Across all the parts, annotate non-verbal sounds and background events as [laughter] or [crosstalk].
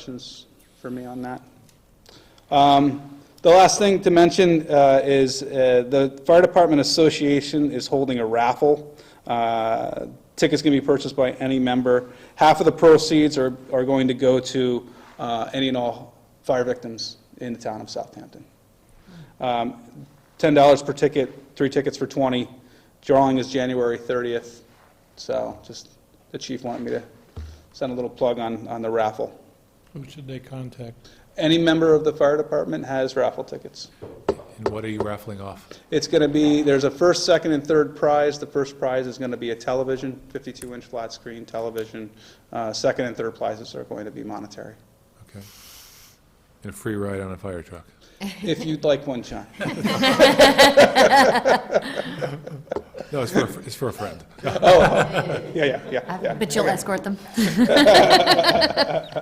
questions for me on that. Um, The last thing to mention uh, is uh, the Fire Department Association is holding a raffle. Uh, Tickets can be purchased by any member. Half of the proceeds are are going to go to uh, any and all fire victims in the town of Southampton. Um, $10 per ticket, three tickets for 20. Drawing is January 30th, so just, the chief wanted me to send a little plug on on the raffle. Who should they contact? Any member of the fire department has raffle tickets. And what are you raffling off? It's going to be, there's a first, second, and third prize. The first prize is going to be a television, 52-inch flat-screen television. Uh, Second and third prizes are going to be monetary. Okay. And a free ride on a fire truck. If you'd like one, John. Oh, No, it's for, a fr- it's for a friend. oh, Yeah, yeah, yeah, yeah. Uh, But you'll escort them. [laughs]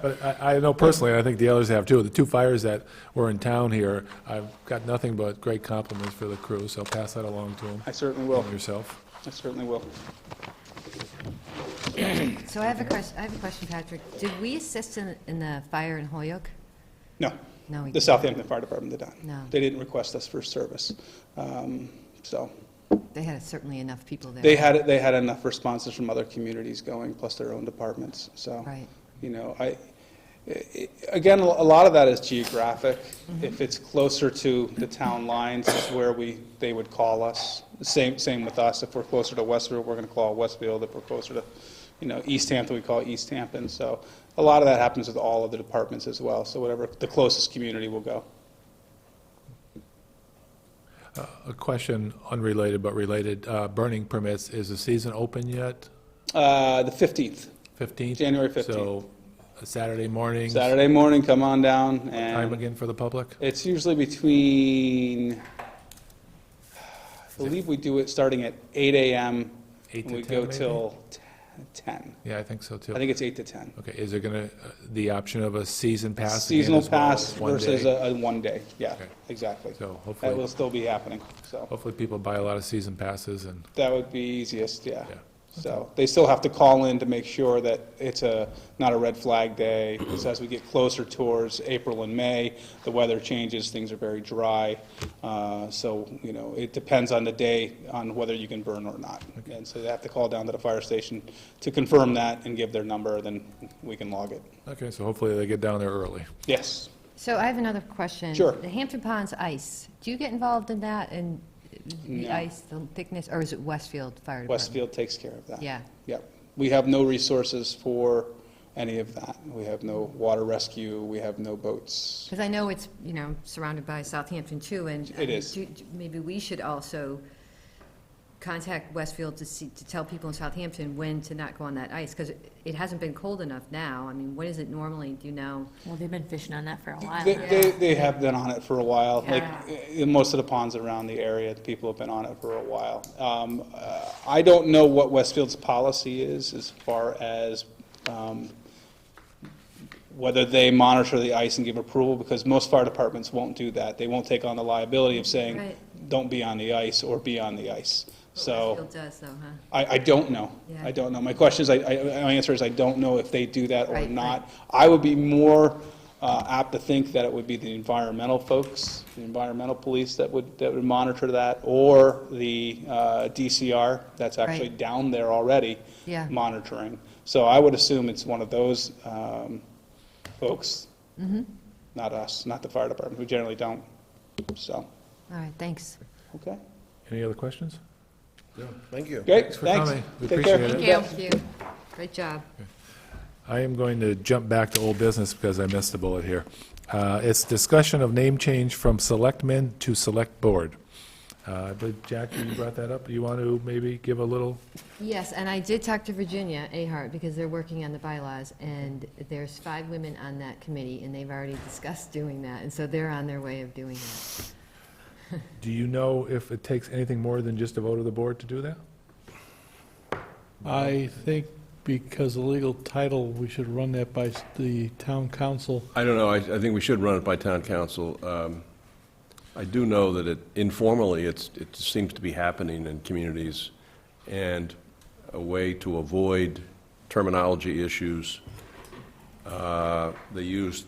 But I, I know personally, and I think the others have too, the two fires that were in town here, I've got nothing but great compliments for the crew, so pass that along to them. I certainly will. And yourself. I certainly will. So I have a question, I have a question, Patrick. Did we assist in, in the fire in Holyoke? No, No, we the didn't. Southampton Fire Department did not. No. They didn't request us for service. Um, So They had certainly enough people there. they had, they had enough responses from other communities going, plus their own departments, so. Right. You know, I, i- i- again, a lot of that is geographic. If it's closer to the town lines is where we, they would call us. Same, same with us. If we're closer to Westfield, we're going to call Westfield. If we're closer to, you know, East Hampton, we call East Hampton. So a lot of that happens with all of the departments as well. So whatever, the closest community will go. A question unrelated but related, uh, burning permits, is the season open yet? Uh, The 15th, 15th? January 15th. So a Saturday morning. Saturday morning, come on down Time and again for the public? it's usually between, I believe we do it starting at 8 AM. Eight and to we 10 go maybe? till t- 10. Yeah, I think so too. I think it's 8 to 10. Okay, is there gonna, uh, the option of a season pass? again Seasonal as well as pass one versus day? a, a one day, yeah, Okay. exactly. So That will hopefully, still be happening, so hopefully people buy a lot of season passes and, that would be easiest, yeah. yeah. So they still have to call in to make sure that it's a, not a red flag day. So as we get closer towards April and May, the weather changes, things are very dry. Uh, So, you know, it depends on the day, on whether you can burn or not. And so they have to call down to the fire station to confirm that and give their number, then we can log it. Okay, so hopefully they get down there early. Yes. So I have another question. Sure. The Hampton Ponds ice, do you get involved in that and the No. ice, the thickness, or is it Westfield Fire Department? Westfield takes care of that. Yeah. Yep. We have no resources for any of that. We have no water rescue, we have no boats. Because I know it's, you know, surrounded by Southampton too, and. It is. do- do- Maybe we should also contact Westfield to see, to tell people in Southampton when to not go on that ice, because it hasn't been cold enough now. I mean, what is it normally, do you know? Well, they've been fishing on that for a while They, now. they, they have been on it for a while, like, Yeah. i- i- most of the ponds around the area, people have been on it for a while. Um, uh, I don't know what Westfield's policy is as far as, um, whether they monitor the ice and give approval, because most fire departments won't do that. They won't take on the liability of saying, Right. don't be on the ice or be on the ice, so. Westfield does though, huh? I, I don't know. Yeah. I don't know. My question is, I, I, my answer is I don't know if they do that or Right, not. I would be more uh, apt to think that it would be the environmental folks, the environmental police that would, that would monitor that, or the uh, DCR, that's actually Right. down there already. Yeah. Monitoring. So I would assume it's one of those um, folks. Mm-hmm. Not us, not the fire department, who generally don't, so, All right, thanks. okay. Any other questions? Thank you. Great, Thanks for thanks. coming. We Take care. appreciate it. Thank you. Great job. I am going to jump back to old business because I missed a bullet here. Uh, It's discussion of name change from selectmen to select board. Uh, I believe, Jackie, you brought that up. You want to maybe give a little, Yes, and I did talk to Virginia Ahart, because they're working on the bylaws, and there's five women on that committee, and they've already discussed doing that, and so they're on their way of doing that. do you know if it takes anything more than just a vote of the board to do that? I think because of legal title, we should run that by s- the town council. I don't know, I, I think we should run it by town council. Um, I do know that it informally, it's, it seems to be happening in communities, and a way to avoid terminology issues Uh, They use